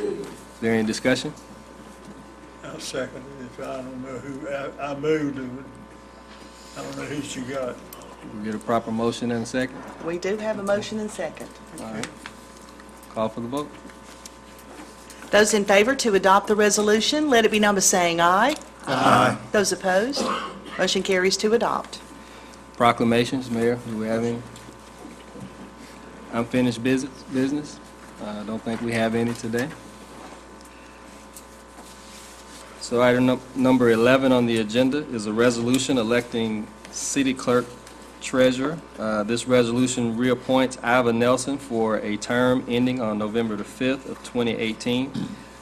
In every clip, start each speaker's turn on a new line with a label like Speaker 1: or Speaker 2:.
Speaker 1: Is there any discussion?
Speaker 2: I'll second it, if I don't know who, I, I moved, it. I don't know who she got.
Speaker 1: We get a proper motion and a second.
Speaker 3: We do have a motion and second.
Speaker 1: All right. Call for the vote.
Speaker 3: Those in favor to adopt the resolution, let it be number saying aye. Aye. Those opposed, motion carries to adopt.
Speaker 1: Proclamations, Mayor, do we have any? Unfinished business, business? Uh, don't think we have any today. So item num- number 11 on the agenda is a resolution electing city clerk treasurer. Uh, this resolution reappoints Iva Nelson for a term ending on November the 5th of 2018.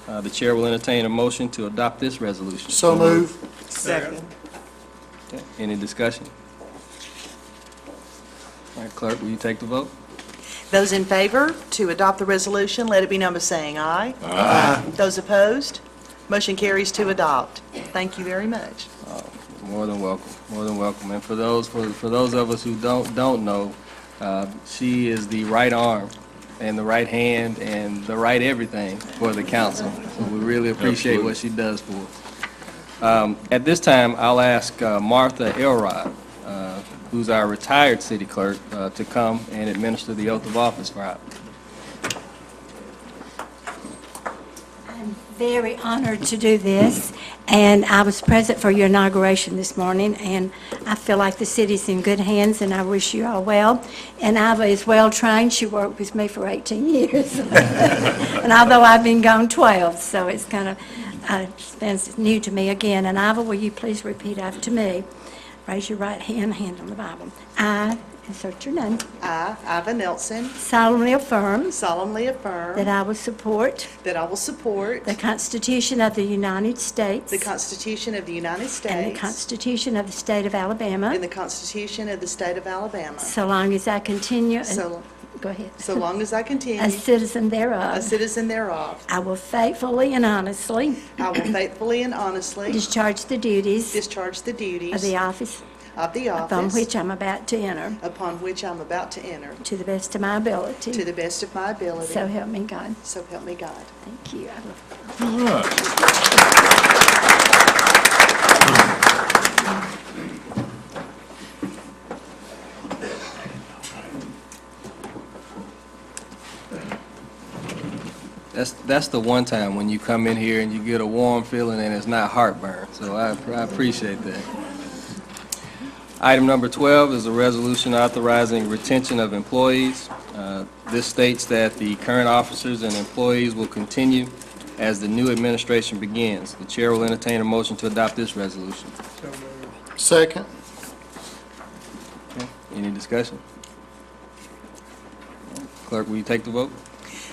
Speaker 1: Uh, the chair will entertain a motion to adopt this resolution.
Speaker 4: So move.
Speaker 2: Second.
Speaker 1: Okay, Any discussion? All right, clerk, will you take the vote?
Speaker 3: Those in favor to adopt the resolution, let it be number saying aye. Aye. Those opposed, motion carries to adopt. Thank you very much.
Speaker 1: More than welcome, more than welcome. And for those, for for those of us who don't, don't know, uh, she is the right arm and the right hand and the right everything for the council. So we really appreciate what she does for us. Um, At this time, I'll ask uh, Martha Elrod, uh, who's our retired city clerk, uh, to come and administer the oath of office for our
Speaker 5: I'm very honored to do this, and I was present for your inauguration this morning, and I feel like the city's in good hands, and I wish you all well. And Iva is well-trained, she worked with me for 18 years, and although I've been gone 12, so it's kind of, uh, it's been new to me again. And Iva, will you please repeat after me? Raise your right hand, hand on the Bible. I, insert your name,
Speaker 3: I, Iva Nelson,
Speaker 5: solemnly affirm
Speaker 3: solemnly
Speaker 5: that
Speaker 3: affirm
Speaker 5: I will support
Speaker 3: that I will support
Speaker 5: the Constitution of the United States.
Speaker 3: the Constitution of the United
Speaker 5: And the
Speaker 3: States
Speaker 5: Constitution of the State of
Speaker 3: and
Speaker 5: Alabama,
Speaker 3: the Constitution of the State of Alabama,
Speaker 5: so long as I continue, and-
Speaker 3: so
Speaker 5: go ahead,
Speaker 3: so long as I
Speaker 5: a
Speaker 3: continue
Speaker 5: citizen
Speaker 3: a
Speaker 5: thereof.
Speaker 3: citizen thereof.
Speaker 5: I will faithfully and honestly
Speaker 3: I will faithfully and honestly
Speaker 5: discharge the duties
Speaker 3: discharge the
Speaker 5: of
Speaker 3: duties
Speaker 5: the office
Speaker 3: of the
Speaker 5: upon
Speaker 3: office
Speaker 5: which I'm about to enter,
Speaker 3: upon which I'm about to enter,
Speaker 5: to the best of my
Speaker 3: to
Speaker 5: ability.
Speaker 3: the best of my ability,
Speaker 5: So help me God.
Speaker 3: so help me God.
Speaker 5: Thank you. I will
Speaker 4: All right.
Speaker 1: That's, that's the one time when you come in here and you get a warm feeling and it's not heartburn, so I, I appreciate that. Item number 12 is a resolution authorizing retention of employees. Uh, This states that the current officers and employees will continue as the new administration begins. The chair will entertain a motion to adopt this resolution.
Speaker 2: So moved.
Speaker 4: Second.
Speaker 1: Any discussion? Clerk, will you take the vote?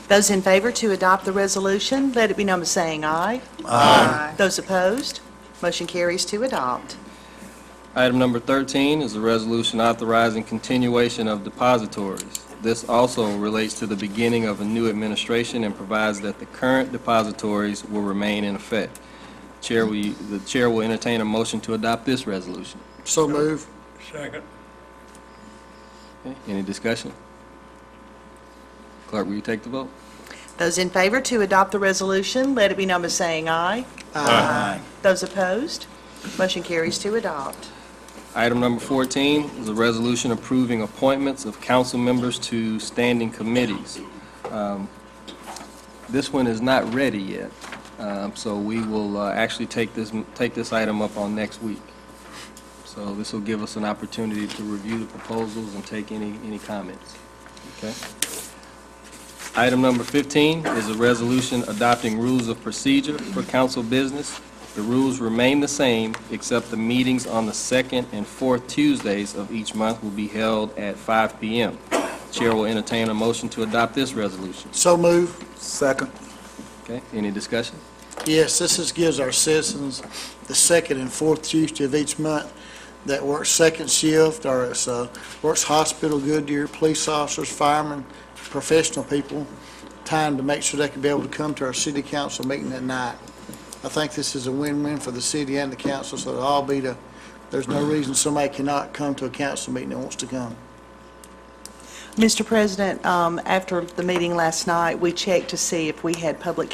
Speaker 3: Those in favor to adopt the resolution, let it be number saying aye. Aye. Those opposed, motion carries to adopt.
Speaker 1: Item number 13 is a resolution authorizing continuation of depositories. This also relates to the beginning of a new administration and provides that the current depositories will remain in effect. Chair, will you- the chair will entertain a motion to adopt this resolution.
Speaker 4: So move.
Speaker 2: Second.
Speaker 1: Okay, Any discussion? Clerk, will you take the vote?
Speaker 3: Those in favor to adopt the resolution, let it be number saying aye. Aye. Those opposed, motion carries to adopt.
Speaker 1: Item number 14 is a resolution approving appointments of council members to standing committees. Um, This one is not ready yet, um, so we will uh, actually take this, take this item up on next week. So this will give us an opportunity to review the proposals and take any, any comments. Okay? Item number 15 is a resolution adopting rules of procedure for council business. The rules remain the same, except the meetings on the second and fourth Tuesdays of each month will be held at 5 PM. Chair will entertain a motion to adopt this resolution.
Speaker 4: So move. Second.
Speaker 1: Okay, any discussion?
Speaker 4: Yes, this is, gives our citizens the second and fourth Tuesday of each month that works second shift, or it's, uh, works hospital, Goodyear, police officers, firemen, professional people, time to make sure they can be able to come to our city council meeting at night. I think this is a win-win for the city and the council, so it'll all be to, there's no reason somebody cannot come to a council meeting that wants to come.
Speaker 3: Mr. President, um, after the meeting last night, we checked to see if we had public